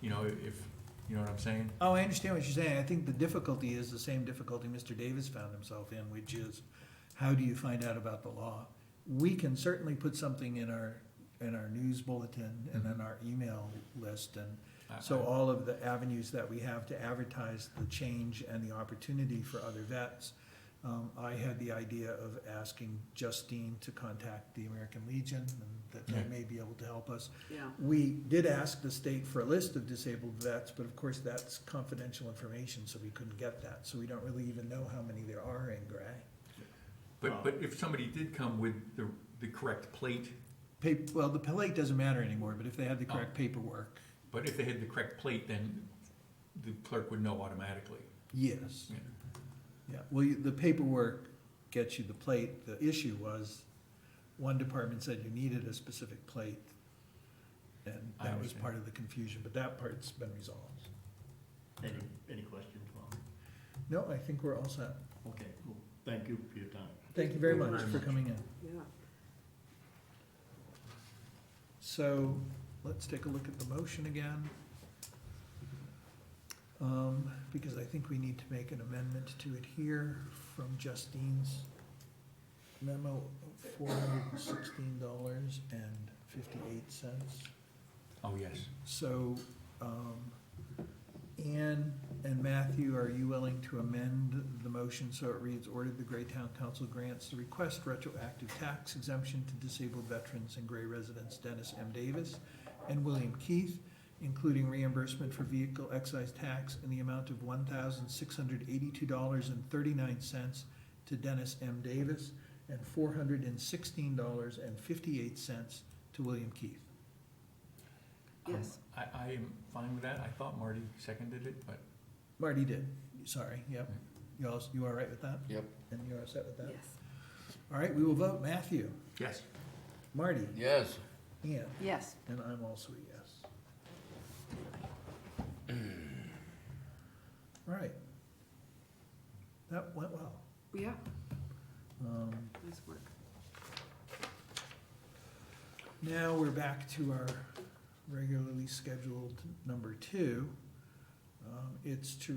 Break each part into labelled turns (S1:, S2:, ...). S1: you know, if, you know what I'm saying?
S2: Oh, I understand what you're saying. I think the difficulty is the same difficulty Mr. Davis found himself in, which is, how do you find out about the law? We can certainly put something in our, in our news bulletin and in our email list and
S1: I-
S2: so
S1: I-
S2: all of the avenues that we have to advertise the change and the opportunity for other vets. Um, I had the idea of asking Justine to contact the American Legion and that they
S1: Yeah.
S2: may be able to help us.
S3: yeah.
S2: We did ask the state for a list of disabled vets, but of course, that's confidential information, so we couldn't get that. So we don't really even know how many there are in Gray.
S1: But, but if somebody did come with the, the correct plate,
S2: Pa- well, the plate doesn't matter anymore, but if they had the
S1: Oh.
S2: correct paperwork,
S1: but if they had the correct plate, then the clerk would know automatically.
S2: yes.
S1: Yeah.
S2: Yeah, well, you- the paperwork gets you the plate. The issue was, one department said you needed a specific plate. And
S1: I
S2: that was
S1: understand.
S2: part of the confusion, but that part's been resolved.
S4: Any, any questions, Bob?
S2: No, I think we're all set.
S4: Okay, cool. Thank you for your time.
S2: Thank you very
S3: Thank you
S2: much
S3: very
S2: for
S4: much.
S2: coming in.
S3: Yeah,
S2: So let's take a look at the motion again. Um, Because I think we need to make an amendment to it here from Justine's memo, four hundred and sixteen dollars and fifty-eight cents.
S1: Oh, yes.
S2: So, um, Ann and Matthew, are you willing to amend the motion so it reads, ordered the Gray Town Council grants the request retroactive tax exemption to disabled veterans and Gray residents Dennis M. Davis and William Keith, including reimbursement for vehicle excise tax in the amount of one thousand six hundred eighty-two dollars and thirty-nine cents to Dennis M. Davis and four hundred and sixteen dollars and fifty-eight cents to William Keith.
S1: Um,
S3: Yes.
S1: I, I am fine with that. I thought Marty seconded it, but
S2: Marty did, sorry, yep. You all, you all right with that?
S5: Yep.
S2: And you're all set with that?
S3: yes,
S2: All right, we will vote Matthew,
S1: yes.
S2: Marty,
S5: Yes.
S2: Ian,
S3: yes.
S2: and I'm also a yes. All right. That went well.
S3: Yeah,
S2: Um,
S3: nice work.
S2: Now we're back to our regularly scheduled number two. Um, It's to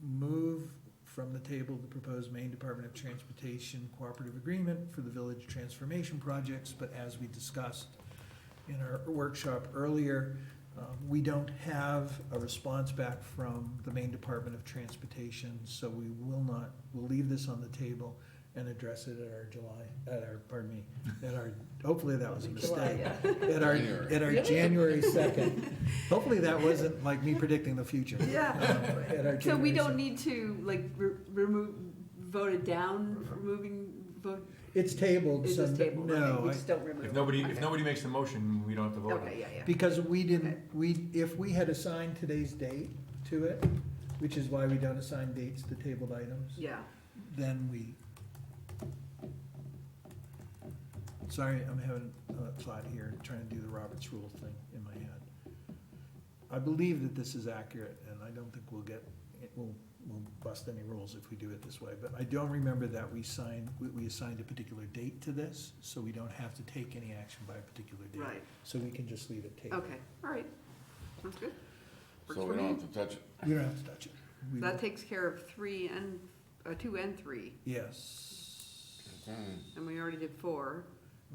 S2: remove from the table the proposed Maine Department of Transportation Cooperative Agreement for the Village Transformation Projects, but as we discussed in our workshop earlier, um, we don't have a response back from the Maine Department of Transportation, so we will not, we'll leave this on the table and address it at our July, at our, pardon me, at our, hopefully that was a mistake. At our, at our
S3: Really?
S2: January second. Hopefully that wasn't like me predicting the future.
S3: Yeah.
S2: Um, At our
S3: So we
S2: January
S3: don't
S2: 2nd.
S3: need to, like, re- remove, vote it down, removing, vote,
S2: It's tabled
S3: it's
S2: some,
S3: just table, okay,
S2: no,
S3: we
S2: I-
S3: just don't remove.
S1: If
S3: it.
S1: nobody, if
S3: Okay.
S1: nobody makes the motion, we don't have to vote on
S3: Okay,
S1: it.
S3: yeah, yeah,
S2: because we
S3: Okay.
S2: didn't, we, if we had assigned today's date to it, which is why we don't assign dates to tabled items,
S3: yeah,
S2: then we. Sorry, I'm having a thought here, trying to do the Roberts Rule thing in my head. I believe that this is accurate, and I don't think we'll get, it will, we'll bust any rules if we do it this way, but I don't remember that we signed, we, we assigned a particular date to this, so we don't have to take any action by a particular date.
S3: right,
S2: So we can just leave it tabled.
S3: okay, all right, sounds good. Works
S5: So
S3: for me.
S5: we don't have to touch it.
S2: We don't have to touch it. We
S3: That
S2: will-
S3: takes care of three and, uh, two and three,
S2: Yes.
S3: and we already did four,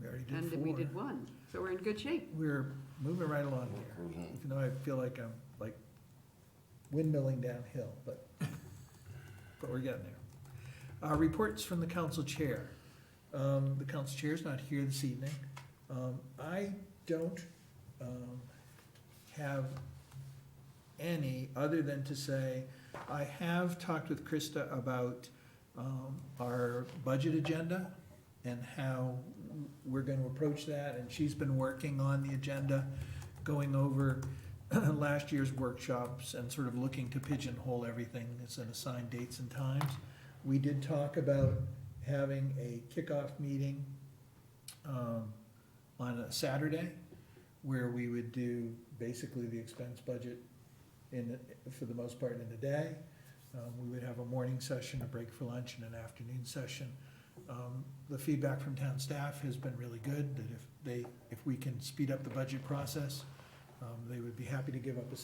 S2: We already did
S3: and
S2: four.
S3: we did one, so we're in good shape.
S2: We're moving right along here.
S5: Mhm.
S2: even though I feel like I'm like windmilling downhill, but, but we're getting there. Uh, reports from the council chair. Um, the council chair's not here this evening. Um, I don't, um, have any other than to say, I have talked with Krista about, um, our budget agenda and how we're gonna approach that, and she's been working on the agenda, going over last year's workshops and sort of looking to pigeonhole everything, it's an assigned dates and times. We did talk about having a kickoff meeting, um, on a Saturday, where we would do basically the expense budget in, for the most part in the day. Um, we would have a morning session, a break for lunch, and an afternoon session. Um, The feedback from town staff has been really good, that if they, if we can speed up the budget process, um, they would be happy to give up a Saturday